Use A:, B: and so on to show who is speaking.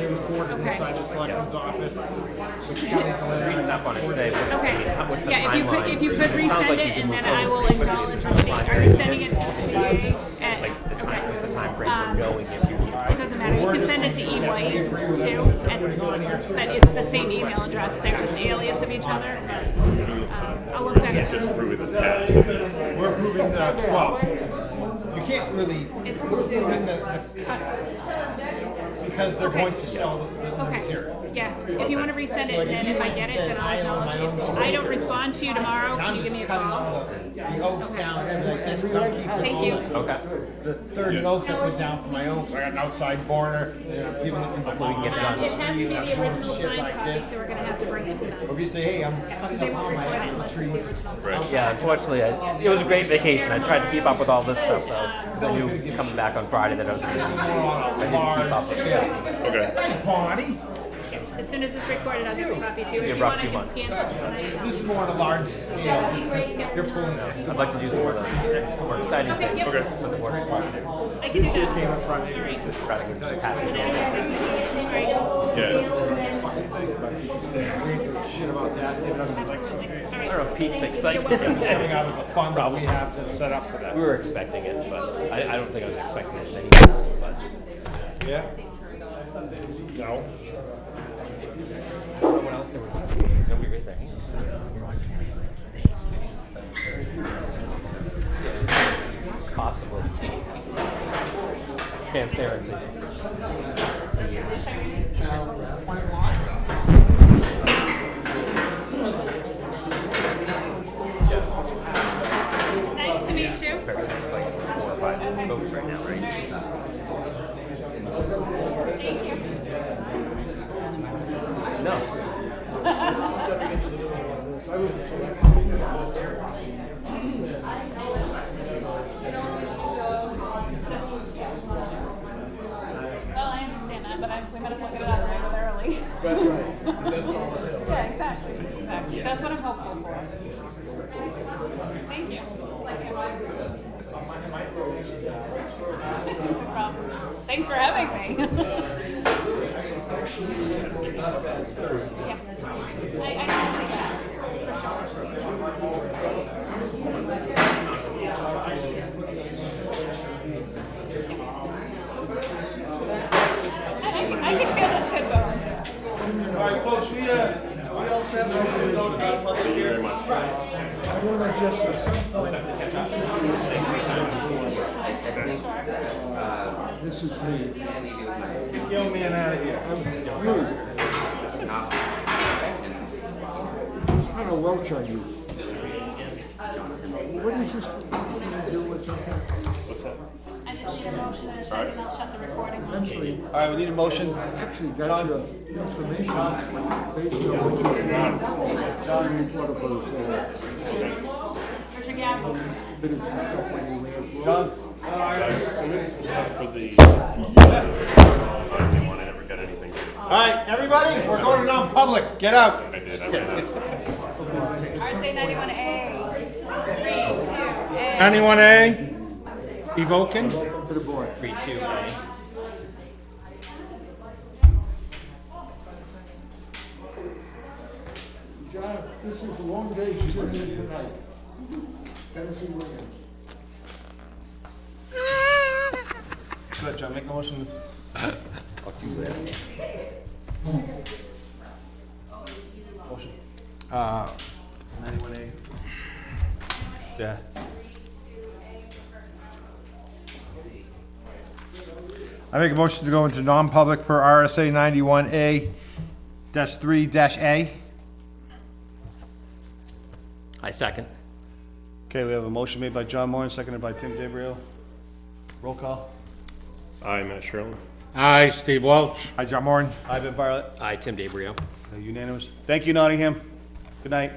A: Okay.
B: inside the selectman's office. with calendar.
C: Reading up on it today. but
A: Okay.
C: What's the
A: Yeah, if you could,
C: timeline?
A: if you could
C: It sounds
A: resend
C: like
A: it
C: you can
A: and
C: move
A: then I will
C: forward, but it's
A: acknowledge
C: just
A: receipt.
C: not
A: Are you
C: very-
A: sending it to me at?
C: The time,
A: okay.
C: what's the time frame
A: Um,
C: for knowing if you
A: It doesn't matter. You can send it to E White too, and, but it's the same email address. They're just alias of each other. Um, I'll look that
D: Just
A: up.
D: prove it attached.
B: We're approving the twelve. You uh, can't really, we're approving the, the cut. Because they're going to sell the- the material.
A: Okay. Yeah. If you want to resend it, and then if I get it, then I'll acknowledge it. If I don't respond to you tomorrow,
B: And
A: can
B: I'm
A: you give
B: just
A: me a
B: cutting all
A: call?
B: the, the oaks down and like this, 'cause I'm keeping
A: Thank
B: all
A: you.
B: the-
C: Okay.
B: The thirty oaks I put down for my oaks, I got an outside border, they're giving it to my mom.
C: get it
A: Um, it has to be the original
B: Shit
A: signed
B: like
A: copy,
B: this.
A: so we're gonna have to bring it to them.
B: If you say, hey, I'm cutting
A: They
B: up
A: won't
B: all my
A: record it
B: apple
A: unless it's the
B: trees.
A: original.
D: Right.
C: Yeah, unfortunately, I, it was a great vacation. I tried to keep up with all this stuff though, because I knew coming back on Friday that I was. Gonna,
B: More on a large scale.
D: Okay.
B: Hey, Bonnie,
A: As soon as it's recorded, I'll get a copy too. If
C: Give
A: you
C: her a
A: want, I
C: few
A: can
C: months.
A: scan this tonight.
B: this is more on a large
A: That'd be
B: scale.
A: great. Yep.
B: You're pulling that.
C: I'd like to do some more of the more exciting
A: Okay,
C: things
A: yep.
C: with the works.
A: I can do that. All right.
C: Rather than just passing it.
A: All right.
D: Yeah.
B: Shit about that, dude, I'm like,
A: Absolutely. All
C: I don't know,
A: right.
C: peaked
B: coming
C: excitement.
B: out of the fund that we have that's set up for that.
C: we were expecting it, but I, I don't think I was expecting as many. But
B: Yeah? No.
C: someone else there was nobody raised their hands. Yeah, Possible. Transparency.
A: Nice to meet you.
C: Very tight. It's like four or five votes right now, right?
A: Thank you.
C: No.
A: Well, I understand that, but I, we might as well get it out regularly. That's right. yeah, exactly. Exactly. That's what I'm hopeful for. Thank you. No problem. Thanks for having me. yeah. I, I can see that. I, I, can, I can feel those good bones.
B: All right, folks, we, uh, we all set, we're gonna go to that public hearing. I wanna just, uh, at some point,
E: This is me.
B: get your man out of here.
E: What kind of Welch are you? What is this? What do you do with it?
D: What's that?
A: I just need a motion and a second, I'll shut the recording.
E: Actually,
B: All right, we need a motion.
E: actually, that's your information based on what you read. John reported for us, uh,
A: Richard Gamble.
E: bit of some stuff when you read.
D: Guys, submitting some stuff for the. I didn't want to ever get anything.
B: All right, everybody, we're going to non-public, get out.
D: I did. I ran out.
A: RSA ninety-one A. Three, two, A.
B: Ninety-one A, evoking.
E: To the board.
C: Three, two, A.
E: John, this is a long day sitting here tonight. Tennessee Williams.
B: Good, John, make a motion. Motion. Uh, ninety-one A. Yeah. I make a motion to go into non-public per RSA ninety-one A dash three dash A.
C: I second.
B: Okay, we have a motion made by John Moore, and seconded by Tim DeBrio. Roll call.
D: Hi, Matt Sherlin.
F: Aye, Steve Welch.
B: Hi, John Moore. Hi, Ben Bartlett.
C: I, Tim DeBrio.
B: Unanimous. Thank you, Nottingham. Good night.